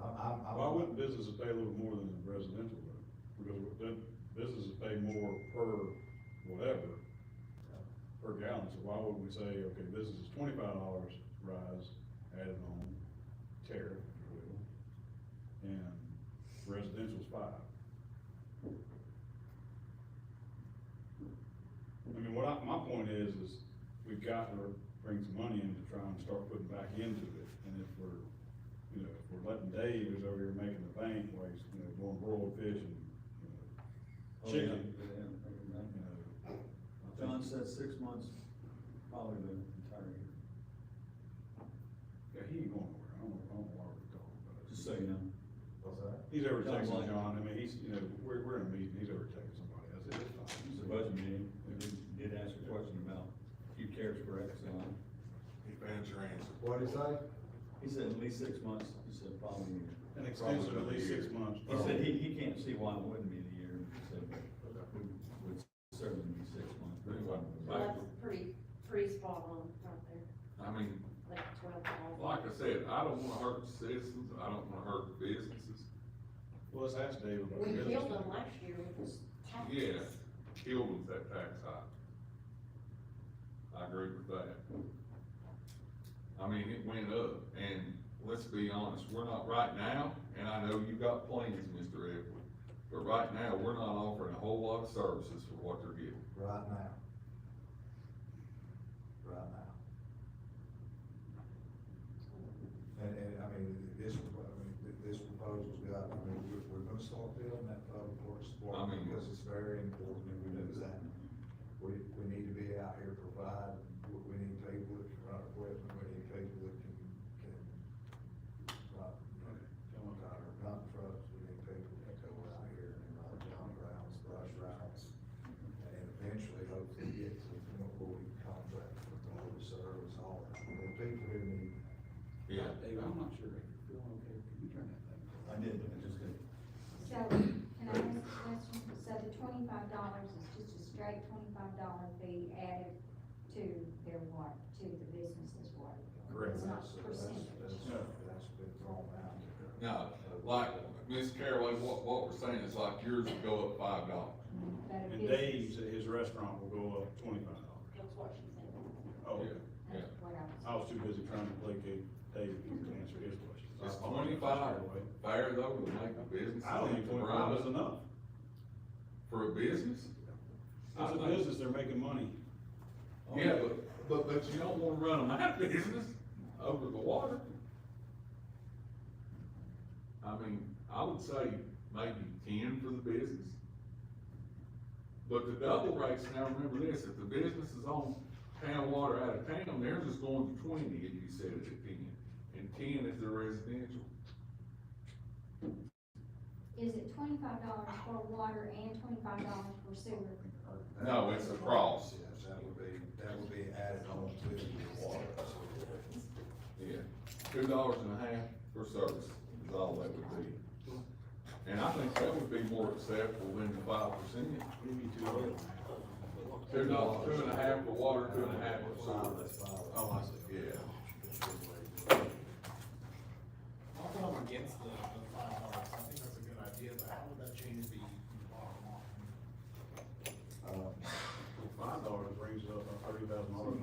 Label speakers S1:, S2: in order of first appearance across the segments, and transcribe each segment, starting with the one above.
S1: I'm, I'm.
S2: Why wouldn't businesses pay a little more than a residential road? Because then businesses pay more per whatever, per gallon, so why would we say, okay, this is twenty-five dollars rise, added on tariff, if you will, and residential's five? I mean, what I, my point is, is we've got to bring some money in to try and start putting back into it, and if we're you know, if we're letting Dave is over here making the bank, where he's, you know, doing broiled fish and, you know,
S3: Oh,
S2: chicken,
S3: yeah, yeah, yeah.
S2: you know. I think-
S3: John said six months, probably the entire year,
S2: Yeah, he ain't going nowhere, I don't know, I don't know why we're talking about it.
S3: just so you know.
S1: What's that?
S2: He's over
S3: John
S2: texting
S3: White.
S2: John, I mean, he's, you know, we're, we're in a meeting, he's over texting somebody, I said, it's fine.
S3: It's a budget meeting, we did- did ask a question about, if you cares for X amount.
S4: Advance your answer.
S1: What'd he say?
S3: He said at least six months, he said probably a year.
S2: An extension of at least six months.
S3: He said he, he can't see why it wouldn't be the year, he said, but it would certainly be six months. but it wasn't.
S5: So that's pretty, pretty spot on right there,
S4: I mean,
S5: like twelve dollars.
S4: like I said, I don't wanna hurt citizens, I don't wanna hurt businesses,
S2: Well, let's ask Dave about
S5: We
S2: business.
S5: killed them last year with this tax.
S4: Yeah. kill them at that tax high. I agree with that. I mean, it went up, and let's be honest, we're not right now, and I know you got plans, Mr. Edward, but right now, we're not offering a whole lot of services for what they're getting.
S1: Right now. Right now. And, and, I mean, this, I mean, th- this proposal's got, I mean, we're, we're gonna start building that public works
S4: I
S1: department
S4: mean-
S1: because it's very important and we know that. We, we need to be out here providing, we, we need people that can run equipment, we need people that can, can, run,
S2: Okay, come on.
S1: not, not trucks, we need people that go out here and run down rounds, brush rounds. And eventually hopefully get to the point where we can contract with the whole service, all that, the people who need.
S4: Yeah.
S2: Dave, I'm not sure if you're feeling okay, can you turn that thing?
S3: I did, I just did.
S6: So, can I ask a question? So the twenty-five dollars is just a straight twenty-five dollar fee added to their water, to the business's water? bill?
S2: Correct.
S6: It's not
S1: That's-
S6: percentage?
S1: That's, that's, that's been thrown out.
S4: No, like, Ms. Caraway, what, what we're saying is like yours would go up five dollars.
S6: But a
S2: And
S6: business-
S2: Dave's, at his restaurant will go up twenty-five dollars.
S5: That's what she said.
S2: Oh,
S4: Yeah.
S6: That's what I was.
S2: I was too busy trying to placate Dave to answer his question. I
S4: It's
S2: apologize.
S4: 25. Fair though, would make the business.
S2: I don't think twenty-five is enough.
S4: For a business?
S2: It's a business, they're making money.
S4: Yeah, but, but, but you don't wanna run them out of business over the water. I mean, I would say maybe ten for the business. But the double rates, now remember this, if the business is on town water out of town, theirs is going to twenty if you set it at ten, and ten is the residential.
S6: Is it twenty-five dollars for water and twenty-five dollars for sewer?
S4: No, it's a cross.
S1: Yes, that would be, that would be added on to the water.
S4: Yeah, two dollars and a half for service is all that would be. And I think that would be more acceptable than the five percent.
S2: Maybe two of them.
S4: Two dollars, two and a half for water, two and a half for
S1: Five,
S4: sewer.
S1: that's five.
S2: Oh, I see.
S4: Yeah,
S7: I'll put them against the, the five dollars, I think that's a good idea, but how would that change the bottom line?
S1: Um,
S2: Five dollars brings up a thirty thousand dollars.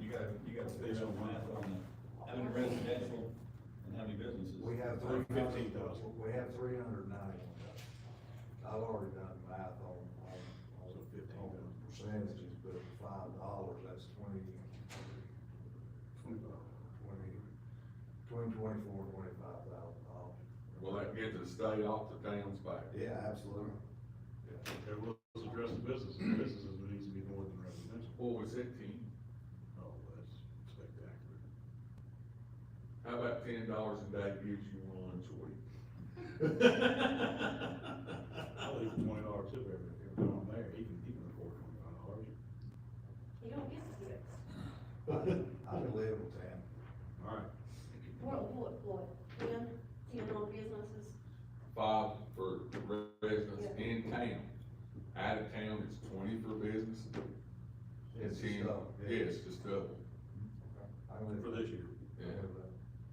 S3: You gotta, you gotta figure out the math on the, having a residential and having businesses.
S1: We have three,
S2: Like
S1: fifteen
S2: 15,000.
S1: thousand, we have three hundred ninety-one thousand. I've already done math on, on, on
S2: So
S1: the
S2: 15,000.
S1: percentages, but at five dollars, that's twenty, twenty, between twenty-four and twenty-five thousand dollars.
S4: well, that gets the state off the town's back.
S1: Yeah, absolutely.
S2: Okay, well, let's address the business. The Businesses needs to be more than residential.
S4: What was it, ten?
S2: Oh, that's spectacular.
S4: How about ten dollars a day gives you one choice?
S2: I leave a twenty dollar tip every, every time I'm there. He can, he can afford twenty-five dollars.
S5: You don't get to do it.
S1: I-
S5: oh
S1: uh,